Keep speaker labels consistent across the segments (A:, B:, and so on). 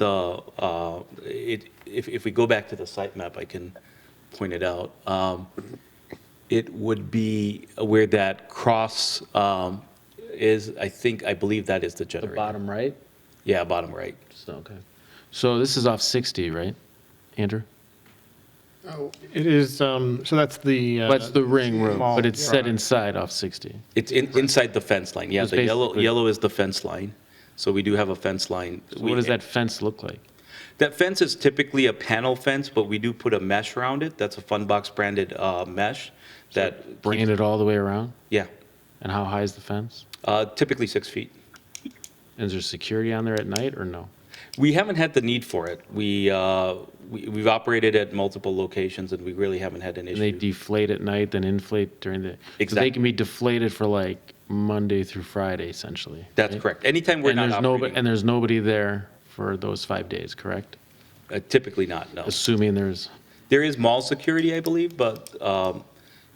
A: the, uh, it, if, if we go back to the site map, I can point it out. Um, It would be where that cross um, is, I think, I believe that is the
B: The
A: generator.
B: bottom right?
A: Yeah, bottom right.
B: So, Okay. So this is off 60, right, Andrew?
C: It is, um, so that's the. uh,
B: That's the ring room,
C: small-
B: but it's set
C: yeah.
B: inside off 60.
A: It's in- inside the fence line, yeah,
B: It's
A: the yellow,
B: basically-
A: yellow is the fence line. So we do have a fence line.
B: So
A: We-
B: what does that fence look like?
A: That fence is typically a panel fence, but we do put a mesh around it. That's a Funbox branded uh, mesh that,
B: Bringing it all the way around?
A: yeah,
B: And how high is the fence?
A: uh, typically six feet.
B: And is there security on there at night or no?
A: We haven't had the need for it. We, uh, we- we've operated at multiple locations and we really haven't had an
B: And they
A: issue.
B: deflate at night, then inflate during the, so
A: Exact-
B: they can be deflated for like Monday through Friday essentially.
A: That's
B: right?
A: correct. Anytime we're
B: And
A: not
B: there's nobody,
A: operating,
B: and there's nobody there for those five days, correct?
A: uh, typically not, no.
B: Assuming there's,
A: There is mall security, I believe, but um,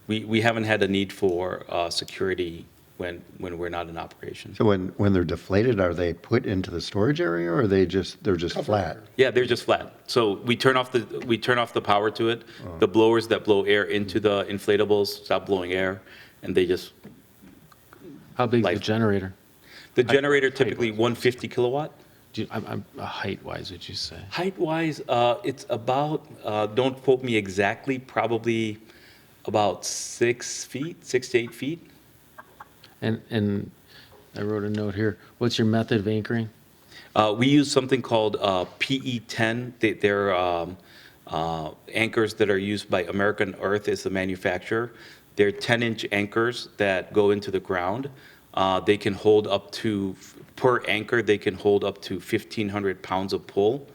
A: we, we haven't had a need for uh, security when, when we're not in operation.
D: So when, when they're deflated, are they put into the storage area or are they just, they're just flat?
A: Yeah, they're just flat. So we turn off the, we turn off the power to it. The blowers that blow air into the inflatables stop blowing air, and they just,
B: how big is
A: Like-
B: the generator?
A: the generator typically 150 kilowatt.
B: Do you, I'm, I'm, height wise, would you say?
A: Height-wise, uh, it's about, uh, don't quote me exactly, probably about six feet, six to eight feet.
B: And, and I wrote a note here, what's your method of anchoring?
A: Uh, We use something called uh, PE10. They- They're um, uh, anchors that are used by American Earth is the manufacturer. They're 10-inch anchors that go into the ground. Uh, They can hold up to, per anchor, they can hold up to 1,500 pounds of pull.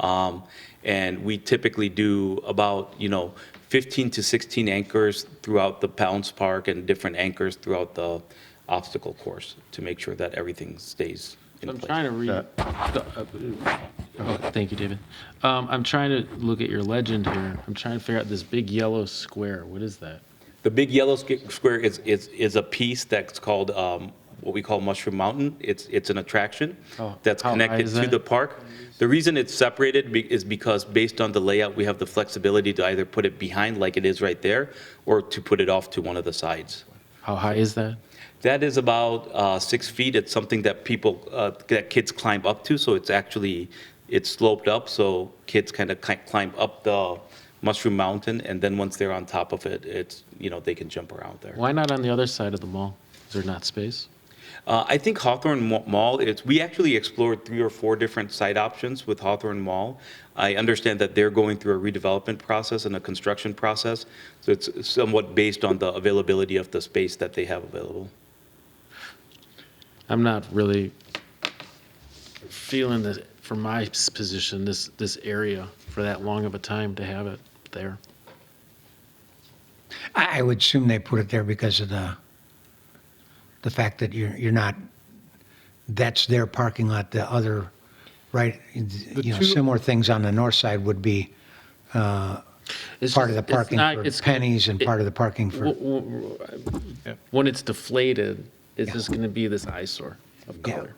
A: Um, And we typically do about, you know, 15 to 16 anchors throughout the Pounds Park and different anchors throughout the obstacle course to make sure that everything stays in
B: I'm
A: place.
B: trying to read. the- uh, oh, Thank you, David. Um, I'm trying to look at your legend here. I'm trying to figure out this big yellow square. What is that?
A: The big yellow squ- square is, is, is a piece that's called, um, what we call Mushroom Mountain. It's, it's an attraction
B: Oh,
A: that's
B: how high
A: connected
B: is
A: to
B: that?
A: the park. The reason it's separated be- is because based on the layout, we have the flexibility to either put it behind like it is right there, or to put it off to one of the sides.
B: How high is that?
A: That is about uh, six feet. It's something that people, uh, that kids climb up to, so it's actually, it's sloped up, so kids kind of climb up the Mushroom Mountain, and then once they're on top of it, it's, you know, they can jump around there.
B: Why not on the other side of the mall? Is there not space?
A: Uh, I think Hawthorne Mo- Mall, it's, we actually explored three or four different site options with Hawthorne Mall. I understand that they're going through a redevelopment process and a construction process, so it's somewhat based on the availability of the space that they have available.
B: I'm not really feeling that from my s- position, this, this area for that long of a time to have it there.
E: I I would assume they put it there because of the, the fact that you're, you're not, that's their parking lot, the other, right? You know,
C: two-
E: similar things on the north side would be
B: It's
E: part of
B: just-
E: the
B: it's
E: parking
B: not-
E: for
B: it's-
E: pennies and part of the parking for,
B: w- w- w- When it's deflated, it's just going to be this eyesore of
E: Yeah.
B: color.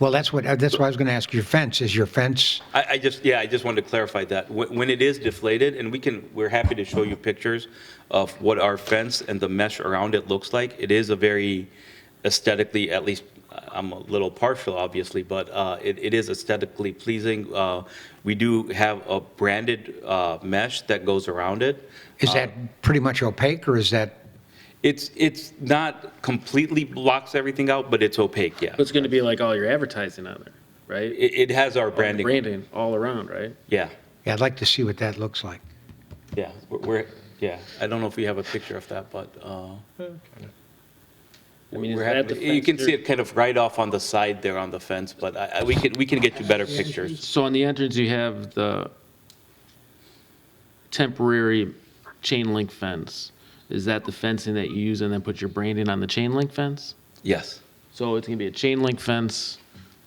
E: well, that's what, that's why I was going to ask your fence, is your fence,
A: I, I just, yeah, I just wanted to clarify that. When, when it is deflated, and we can, we're happy to show you pictures of what our fence and the mesh around it looks like. It is a very aesthetically, at least, uh, I'm a little partial, obviously, but uh, it, it is aesthetically pleasing. Uh, We do have a branded uh, mesh that goes around it.
B: Uh,
E: is that pretty much opaque or is that,
A: It's, it's not completely blocks everything out, but it's opaque, yeah.
B: But It's going to be like all your advertising on there, right?
A: It, it has our
B: branding.
A: branding,
B: all around, right?
A: yeah,
E: yeah, I'd like to see what that looks like.
A: yeah. We're- We're, yeah, I don't know if we have a picture of that, but. uh,
B: I mean, is
A: We're
B: that
A: happy-
B: the
A: You can
B: fence
A: see
B: there?
A: it kind of right off on the side there on the fence, but I, I- we can, we can get you better pictures.
B: So on the entrance, you have the temporary chain link fence. Is that the fencing that you use and then put your branding on the chain link fence?
A: Yes.
B: So it's going to be a chain link fence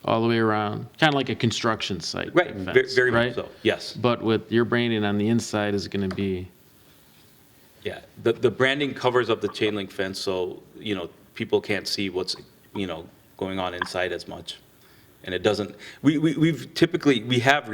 B: all the way around, kind of like a construction site.
A: Right,
B: type
A: ve-
B: fence,
A: very much
B: right?
A: so, yes.
B: But with your branding on the inside is going to be,
A: Yeah, the, the branding covers up the chain link fence, so, you know, people can't see what's, you know, going on inside as much. And it doesn't, we, we, we've typically, we have